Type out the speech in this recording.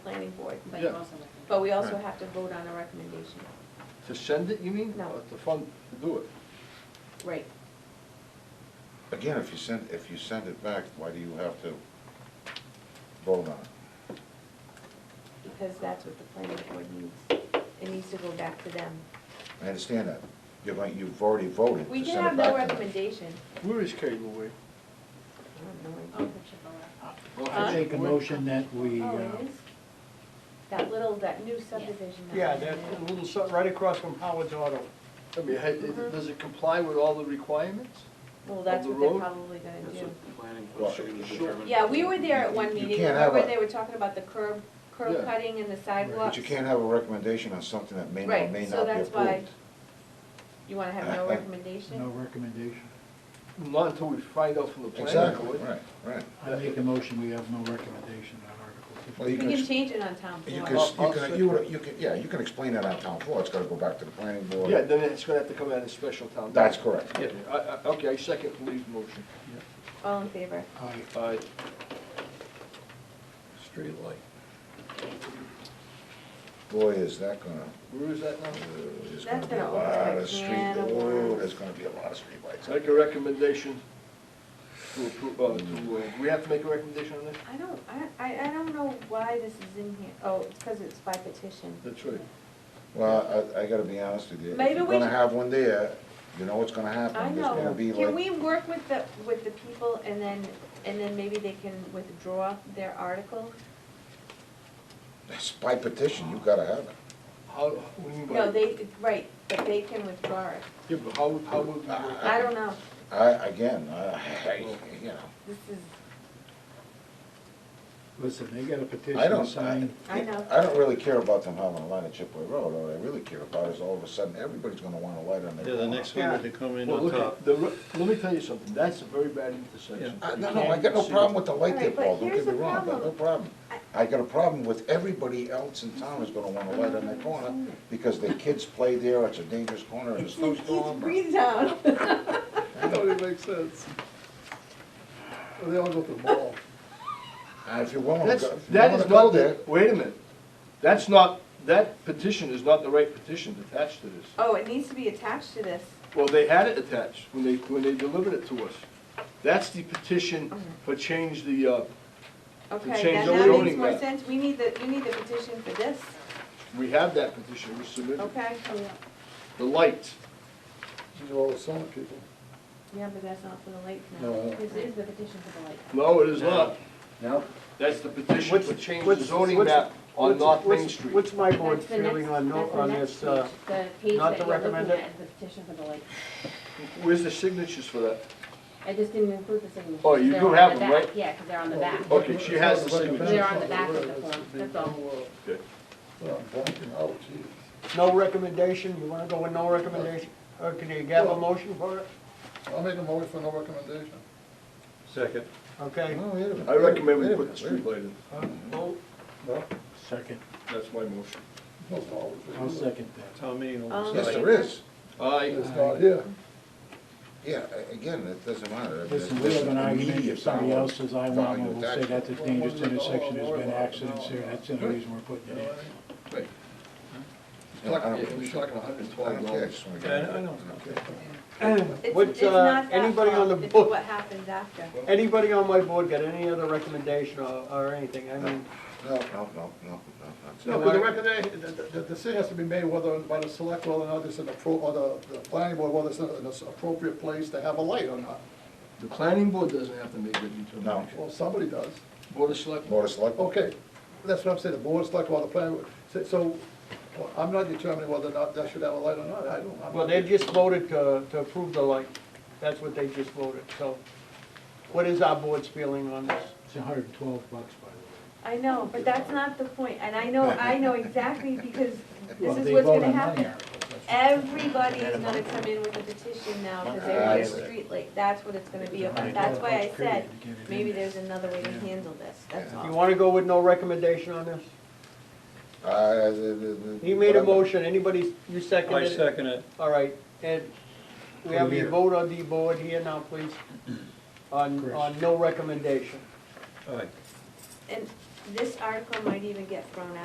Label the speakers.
Speaker 1: planning board,
Speaker 2: But
Speaker 1: but-
Speaker 2: you
Speaker 3: Yeah.
Speaker 2: also recommend-
Speaker 1: but we also
Speaker 4: Right.
Speaker 1: have to vote on a recommendation.
Speaker 3: To send it, you mean?
Speaker 1: No.
Speaker 3: Or To fund, to do it?
Speaker 1: Right,
Speaker 4: Again, if you send, if you send it back, why do you have to vote on it?
Speaker 1: because that's what the planning board needs. It needs to go back to them.
Speaker 4: I understand that. You're going, you've already voted
Speaker 1: We
Speaker 4: to
Speaker 1: did
Speaker 4: send
Speaker 1: have
Speaker 4: it
Speaker 1: no
Speaker 4: back to them.
Speaker 1: recommendation.
Speaker 3: Where is Cable Way?
Speaker 1: I don't know.
Speaker 2: Oh, it should go up.
Speaker 1: Huh?
Speaker 5: I make a motion that we,
Speaker 1: Oh,
Speaker 5: uh,
Speaker 1: it is? That little, that new subdivision. that
Speaker 6: Yeah,
Speaker 1: we
Speaker 6: that
Speaker 1: did.
Speaker 6: little, su- right across from Howard's Auto.
Speaker 3: I mean, ha-
Speaker 1: Mhm.
Speaker 3: it- does it comply with all the requirements?
Speaker 1: Well, that's
Speaker 3: the
Speaker 1: what they're
Speaker 3: road?
Speaker 1: probably gonna do.
Speaker 7: planning
Speaker 4: Well,
Speaker 7: should
Speaker 3: sure.
Speaker 7: determine.
Speaker 1: Yeah, we were there at one
Speaker 4: You
Speaker 1: meeting,
Speaker 4: can't have
Speaker 1: remember
Speaker 4: a-
Speaker 1: they were talking about the curb, curb
Speaker 3: Yeah.
Speaker 1: cutting and the
Speaker 4: But
Speaker 1: sidewalks?
Speaker 4: you can't have a recommendation on something that may not,
Speaker 1: Right,
Speaker 4: may
Speaker 1: so
Speaker 4: not be
Speaker 1: that's why-
Speaker 4: approved.
Speaker 1: You wanna have no
Speaker 4: I- I-
Speaker 5: no
Speaker 1: recommendation?
Speaker 5: recommendation.
Speaker 3: Not until we find out from the planning
Speaker 4: Exactly,
Speaker 3: board.
Speaker 4: right, right.
Speaker 5: I make a motion, we have no recommendation on Article
Speaker 4: Well,
Speaker 1: We
Speaker 4: you
Speaker 1: can
Speaker 4: can-
Speaker 1: change it on town
Speaker 4: You
Speaker 1: floor.
Speaker 4: can,
Speaker 3: I'll-
Speaker 4: you
Speaker 3: I'll
Speaker 4: can,
Speaker 3: second
Speaker 4: you would-
Speaker 3: it.
Speaker 4: you can, yeah, you can explain that on town floor. It's gotta go back to the planning board.
Speaker 3: Yeah, then it's gonna have to come out of special town. meeting.
Speaker 4: That's correct.
Speaker 3: Yeah, I, I, okay, I second Lee's motion.
Speaker 1: All in favor?
Speaker 5: 15.
Speaker 3: Aye.
Speaker 4: Street light. Boy, is that gonna,
Speaker 3: Where is that now?
Speaker 1: That's
Speaker 4: there's gonna be a
Speaker 1: gonna open
Speaker 4: lot
Speaker 1: a
Speaker 4: of street,
Speaker 1: can of
Speaker 4: oh,
Speaker 1: worms.
Speaker 4: there's gonna be a lot of street lights.
Speaker 3: Make a recommendation to approve, uh, to, uh, we have to make a recommendation on this?
Speaker 1: I don't, I, I, I don't know why this is in here, oh, it's because it's by petition.
Speaker 3: That's right.
Speaker 4: Well, I, I gotta be honest with you, if
Speaker 1: Maybe
Speaker 4: you're
Speaker 1: we
Speaker 4: gonna
Speaker 1: should-
Speaker 4: have one there, you know what's gonna happen.
Speaker 1: I
Speaker 4: There's gonna
Speaker 1: know,
Speaker 4: be
Speaker 1: can
Speaker 4: like-
Speaker 1: we work with the, with the people and then, and then maybe they can withdraw their article?
Speaker 4: It's by petition, you gotta have it.
Speaker 3: How, what do you mean by?
Speaker 1: No, they, right, but they can withdraw it,
Speaker 3: Yeah, but how, how would we? work?
Speaker 1: I don't know,
Speaker 4: I, again, I, I- you know,
Speaker 1: this is,
Speaker 5: Listen, they got a
Speaker 4: I
Speaker 5: petition
Speaker 4: don't, I,
Speaker 5: signed,
Speaker 1: I know.
Speaker 4: I don't really care about them having a light at Chipway Road, all I really care about is all of a sudden, everybody's gonna want a light on their
Speaker 7: Yeah, the
Speaker 4: corner.
Speaker 7: next one would come in
Speaker 3: Well,
Speaker 7: on
Speaker 3: look,
Speaker 7: top.
Speaker 3: at the, ro- let me tell you something, that's a very bad intersection.
Speaker 4: I, Uh, no,
Speaker 3: You
Speaker 4: no, I
Speaker 3: can't
Speaker 4: got no
Speaker 3: see
Speaker 4: problem
Speaker 3: the-
Speaker 4: with the light there,
Speaker 1: Alright, but
Speaker 4: Paul, don't
Speaker 1: here's
Speaker 4: get
Speaker 1: the
Speaker 4: me wrong, I got no
Speaker 1: problem.
Speaker 4: problem. I got a problem with everybody else in town is gonna want a light on their corner, because their kids play there, it's a dangerous corner, in a
Speaker 1: it's, it's
Speaker 4: snowstorm. or-
Speaker 1: Breezetown.
Speaker 3: That don't even make sense. Well, They all go to the mall.
Speaker 4: And Uh, if you're willing to
Speaker 3: That's,
Speaker 4: go, if you
Speaker 3: that
Speaker 4: wanna
Speaker 3: is
Speaker 4: go
Speaker 3: not
Speaker 4: there,
Speaker 3: the, wait a minute, that's not, that petition is not the right petition attached to this.
Speaker 1: Oh, it needs to be attached to this,
Speaker 3: Well, they had it attached when they, when they delivered it to us. That's the petition for change the, uh,
Speaker 1: okay,
Speaker 3: change
Speaker 1: then
Speaker 3: the
Speaker 1: that makes
Speaker 3: zoning
Speaker 1: more
Speaker 3: map.
Speaker 1: sense, we need the, we need the petition for this,
Speaker 3: we have that petition, we submitted,
Speaker 1: okay?
Speaker 3: the lights.
Speaker 5: these are all the summer people.
Speaker 1: Yeah, but that's not for the late
Speaker 5: No.
Speaker 1: now.
Speaker 2: This is the petition for the light.
Speaker 3: No, it is not,
Speaker 5: No?
Speaker 3: that's the petition
Speaker 6: What's-
Speaker 3: for change the
Speaker 6: what's-
Speaker 3: zoning
Speaker 6: what's-
Speaker 3: map on
Speaker 6: What's-
Speaker 3: North Main
Speaker 6: what's-
Speaker 3: Street.
Speaker 6: What's my board
Speaker 2: That's the next-
Speaker 6: feeling on, no-
Speaker 2: that's the
Speaker 6: on
Speaker 2: next
Speaker 6: this, uh,
Speaker 2: page, The page
Speaker 6: not
Speaker 2: that
Speaker 6: to
Speaker 2: you're looking
Speaker 6: recommend it?
Speaker 2: at is the petition for the light.
Speaker 3: Where's the signatures for that?
Speaker 2: I just didn't include the signatures.
Speaker 3: Oh, you
Speaker 2: 'cause
Speaker 3: do
Speaker 2: they're on
Speaker 3: have
Speaker 2: the
Speaker 3: them,
Speaker 2: back.
Speaker 3: right? Oh,
Speaker 2: Yeah, because they're on the back.
Speaker 3: Okay, she has the
Speaker 2: They're
Speaker 3: signatures.
Speaker 2: on the back of the form, that's all.
Speaker 6: no recommendation, you wanna go with no recommendation? Or can you have a motion for it?
Speaker 8: I'll make a motion for no recommendation. Oh.
Speaker 7: Second.
Speaker 6: Okay,
Speaker 4: No, wait a minute.
Speaker 3: I recommend we
Speaker 4: Wait a
Speaker 3: put the
Speaker 4: minute, wait a minute.
Speaker 3: streetlight in,
Speaker 5: Second,
Speaker 3: that's my motion.
Speaker 5: I'll second that.
Speaker 7: Town meeting
Speaker 1: Um,
Speaker 7: will
Speaker 4: Yes,
Speaker 7: decide.
Speaker 4: there is,
Speaker 3: Aye.
Speaker 8: It's not here.
Speaker 4: yeah, a- again, it doesn't matter. I mean,
Speaker 5: Listen, we
Speaker 4: there's
Speaker 5: have an argument,
Speaker 4: immediate
Speaker 5: if somebody
Speaker 4: value-
Speaker 5: else says I want
Speaker 4: value
Speaker 5: one, we'll say
Speaker 4: attached to
Speaker 5: that's a
Speaker 4: it.
Speaker 5: dangerous intersection, there's been accidents here, that's the only reason we're putting it
Speaker 3: Right.
Speaker 4: Yeah, I don't-
Speaker 3: We're talking hundred and
Speaker 4: I
Speaker 3: twelve
Speaker 4: don't care, I
Speaker 3: dollars.
Speaker 4: just wanna
Speaker 7: Yeah,
Speaker 4: get.
Speaker 7: I know, I know.
Speaker 1: It's,
Speaker 6: Would,
Speaker 1: it's
Speaker 6: uh,
Speaker 1: not that
Speaker 6: anybody on
Speaker 1: fault,
Speaker 6: the
Speaker 1: it's
Speaker 6: book-
Speaker 1: what happens after.
Speaker 6: Anybody on my board got any other recommendation or, or anything? I mean,
Speaker 4: No, no, no, no, no,
Speaker 8: No,
Speaker 4: no.
Speaker 8: but the recommendation, the, the- the decision has to be made whether, by the select, whether or not it's an appro, or the, the planning board, whether it's an an appropriate place to have a light or not.
Speaker 3: The planning board doesn't have to make that determination.
Speaker 4: No.
Speaker 8: Well, somebody does.
Speaker 3: Board of Selectmen.
Speaker 4: Board of Selectmen.
Speaker 8: Okay, that's what I'm saying, the board select, or the planning board. So- So, well, I'm not determining whether or not that should have a light or not, I don't. I'm-
Speaker 6: well, they just voted to, to approve the light. That's what they just voted, so. What is our board's feeling on this?
Speaker 5: It's hundred and twelve bucks, by the
Speaker 1: I know, but that's not the point, and I know, I know exactly, because
Speaker 5: way.
Speaker 1: this
Speaker 5: Well,
Speaker 1: is
Speaker 5: they
Speaker 1: what's
Speaker 5: vote
Speaker 1: gonna
Speaker 5: on money
Speaker 1: happen.
Speaker 5: articles, that's what-
Speaker 1: Everybody is gonna come in with a petition now, because they want a
Speaker 4: That's it.
Speaker 1: streetlight, that's what it's gonna be about,
Speaker 5: Right.
Speaker 1: that's why I
Speaker 5: Period,
Speaker 1: said,
Speaker 5: get it in
Speaker 1: maybe
Speaker 5: there.
Speaker 1: there's another way to
Speaker 5: Yeah.
Speaker 1: handle this, that's
Speaker 6: You
Speaker 1: all.
Speaker 6: wanna go with no recommendation on this?
Speaker 4: I- I- the- the- the-
Speaker 6: He made a
Speaker 4: whatever.
Speaker 6: motion, anybody, you
Speaker 7: I
Speaker 6: seconded it?
Speaker 7: second it.
Speaker 6: All right, and we have a
Speaker 5: Here.
Speaker 6: vote on the board here now, please, on,
Speaker 5: Chris.
Speaker 6: on no recommendation.
Speaker 7: All right.
Speaker 1: And this article might even get thrown out.